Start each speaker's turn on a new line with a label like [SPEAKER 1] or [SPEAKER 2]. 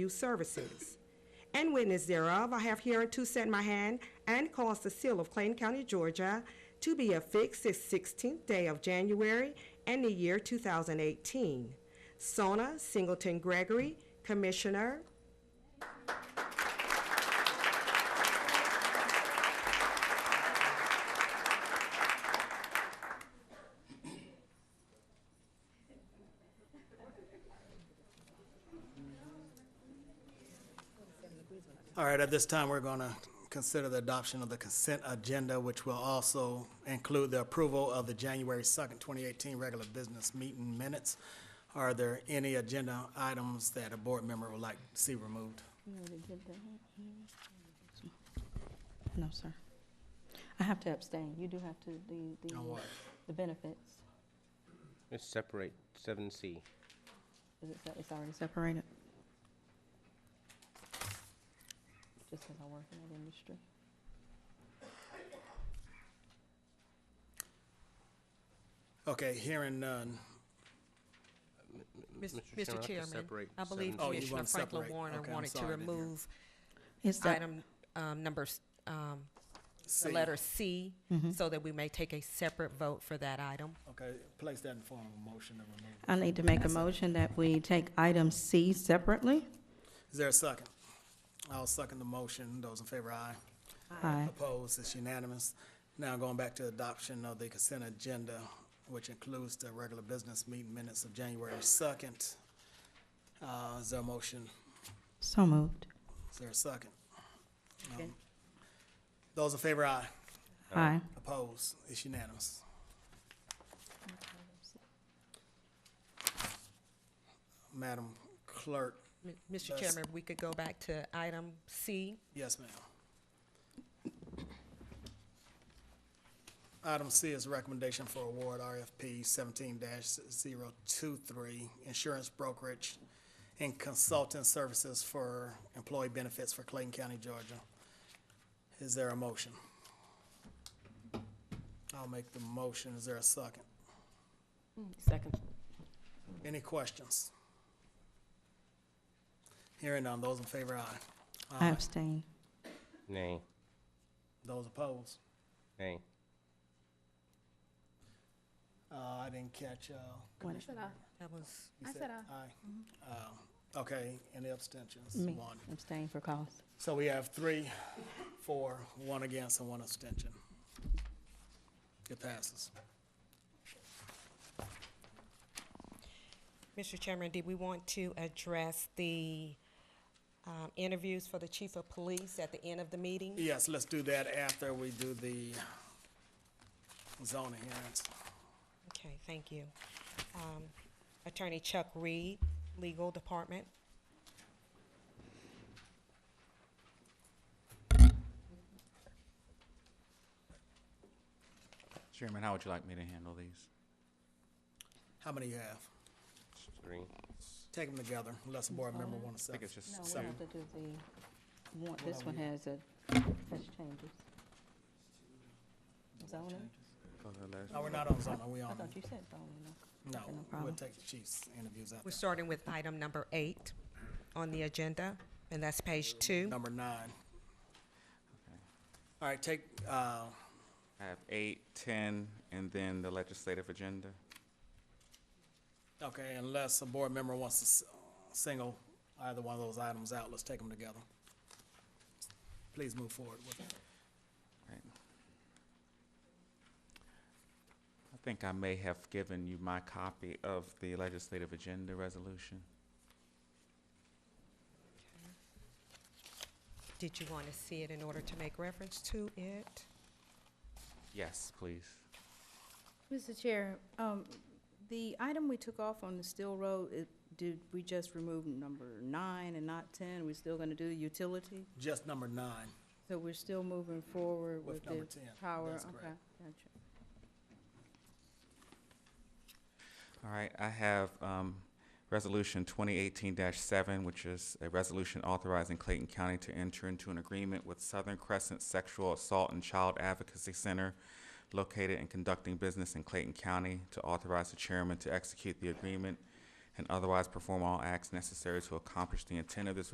[SPEAKER 1] Youth Services. And witness thereof, I have hereunto set my hand and caused the seal of Clayton County, Georgia, to be affixed this 16th day of January in the year 2018. Sona Singleton Gregory, Commissioner.
[SPEAKER 2] All right, at this time, we're going to consider the adoption of the consent agenda, which will also include the approval of the January 2nd, 2018 regular business meeting minutes. Are there any agenda items that a board member would like to see removed?
[SPEAKER 3] No, sir. I have to abstain. You do have to, the, the.
[SPEAKER 2] On what?
[SPEAKER 3] The benefits.
[SPEAKER 4] Let's separate seven C.
[SPEAKER 3] Is it, se- it's already separated? Just because I work in that industry.
[SPEAKER 2] Okay, hearing none.
[SPEAKER 5] Mis- Mr.
[SPEAKER 4] Mr. Chairman, I'd like to
[SPEAKER 5] Chairman,
[SPEAKER 4] separate
[SPEAKER 5] I believe
[SPEAKER 4] 7C.
[SPEAKER 2] Oh, you
[SPEAKER 5] Commissioner Franklin
[SPEAKER 2] wanna separate.
[SPEAKER 5] Warner
[SPEAKER 2] Okay, I'm
[SPEAKER 5] wanted to
[SPEAKER 2] sorry, I didn't hear.
[SPEAKER 5] remove
[SPEAKER 3] It's the-
[SPEAKER 5] item, um, number, s- um,
[SPEAKER 2] C.
[SPEAKER 5] the letter C,
[SPEAKER 2] Mm-hmm.
[SPEAKER 5] so that we may take a separate vote for that item.
[SPEAKER 2] Okay, place that in form of a motion to remove.
[SPEAKER 3] I need to make a motion that we take item C separately.
[SPEAKER 2] Is there a second? I'll second the motion. Those in favor, aye.
[SPEAKER 3] Aye.
[SPEAKER 2] Opposed, it's unanimous. Now going back to adoption of the consent agenda, which includes the regular business meeting minutes of January second. Uh, is there a motion?
[SPEAKER 3] So moved.
[SPEAKER 2] Is there a second? Um, Those in favor, aye.
[SPEAKER 3] Aye.
[SPEAKER 2] Opposed, it's unanimous. Madam Clerk,
[SPEAKER 5] M- Mr.
[SPEAKER 2] That's-
[SPEAKER 5] Chairman, we could go back to item C.
[SPEAKER 2] yes, ma'am. Item C is recommendation for award RFP seventeen 23 insurance brokerage and consultant services for employee benefits for Clayton County, Georgia. Is there a motion? I'll make the motion. Is there a second?
[SPEAKER 3] Second.
[SPEAKER 2] Any questions? Hearing none. Those in favor, aye.
[SPEAKER 3] I abstain.
[SPEAKER 4] Nay,
[SPEAKER 2] Those opposed?
[SPEAKER 4] nay.
[SPEAKER 2] Uh, I didn't catch, uh,
[SPEAKER 5] That was,
[SPEAKER 2] you said aye. Um, Okay, any abstentions?
[SPEAKER 3] Me.
[SPEAKER 2] One.
[SPEAKER 3] Abstain for cause.
[SPEAKER 2] So we have three, four, one against, and one abstention. It passes.
[SPEAKER 5] Mr. Chairman, did we want to address the, um, interviews for the chief of police at the end of the meeting?
[SPEAKER 2] Yes, let's do that after we do the zoning hearings.
[SPEAKER 5] Okay, thank you. Um, Attorney Chuck Reed, Legal Department.
[SPEAKER 6] Chairman, how would you like me to handle these?
[SPEAKER 2] How many you have?
[SPEAKER 4] Three.
[SPEAKER 2] Take them together, unless a board member wants to.
[SPEAKER 6] I think it's just
[SPEAKER 3] No, we have to do the, one, this one has a, has changes. Zoning?
[SPEAKER 6] for the last-
[SPEAKER 2] No, Oh, we're not on zoning, we
[SPEAKER 3] I
[SPEAKER 2] on,
[SPEAKER 3] thought you said zoning.
[SPEAKER 2] no,
[SPEAKER 3] Okay, no
[SPEAKER 2] we'll
[SPEAKER 3] problem.
[SPEAKER 2] take the chief's interviews after.
[SPEAKER 5] We're starting with item number eight on the agenda, and that's page two.
[SPEAKER 2] Number nine. All right, take, uh,
[SPEAKER 6] I have eight, ten, and then the legislative agenda.
[SPEAKER 2] Okay, unless a board member wants to s- uh, single either one of those items out, let's take them together. Please move forward with it.
[SPEAKER 6] Right. I think I may have given you my copy of the legislative agenda resolution.
[SPEAKER 5] Did you want to see it in order to make reference to it?
[SPEAKER 6] Yes, please.
[SPEAKER 7] Mr. Chair, um, the item we took off on the Steel Road, it, did we just remove number nine and not ten? We're still gonna do utility?
[SPEAKER 2] Just number nine.
[SPEAKER 7] So we're still moving forward
[SPEAKER 2] With
[SPEAKER 7] with
[SPEAKER 2] number
[SPEAKER 7] the
[SPEAKER 2] 10,
[SPEAKER 7] power?
[SPEAKER 2] that's
[SPEAKER 7] Okay,
[SPEAKER 2] correct.
[SPEAKER 7] gotcha.
[SPEAKER 6] All right, I have um, Resolution 2018-7, which is a resolution authorizing Clayton County to enter into an agreement with Southern Crescent Sexual Assault and Child Advocacy Center located and conducting business in Clayton County to authorize the chairman to execute the agreement and otherwise perform all acts necessary to accomplish the intent of this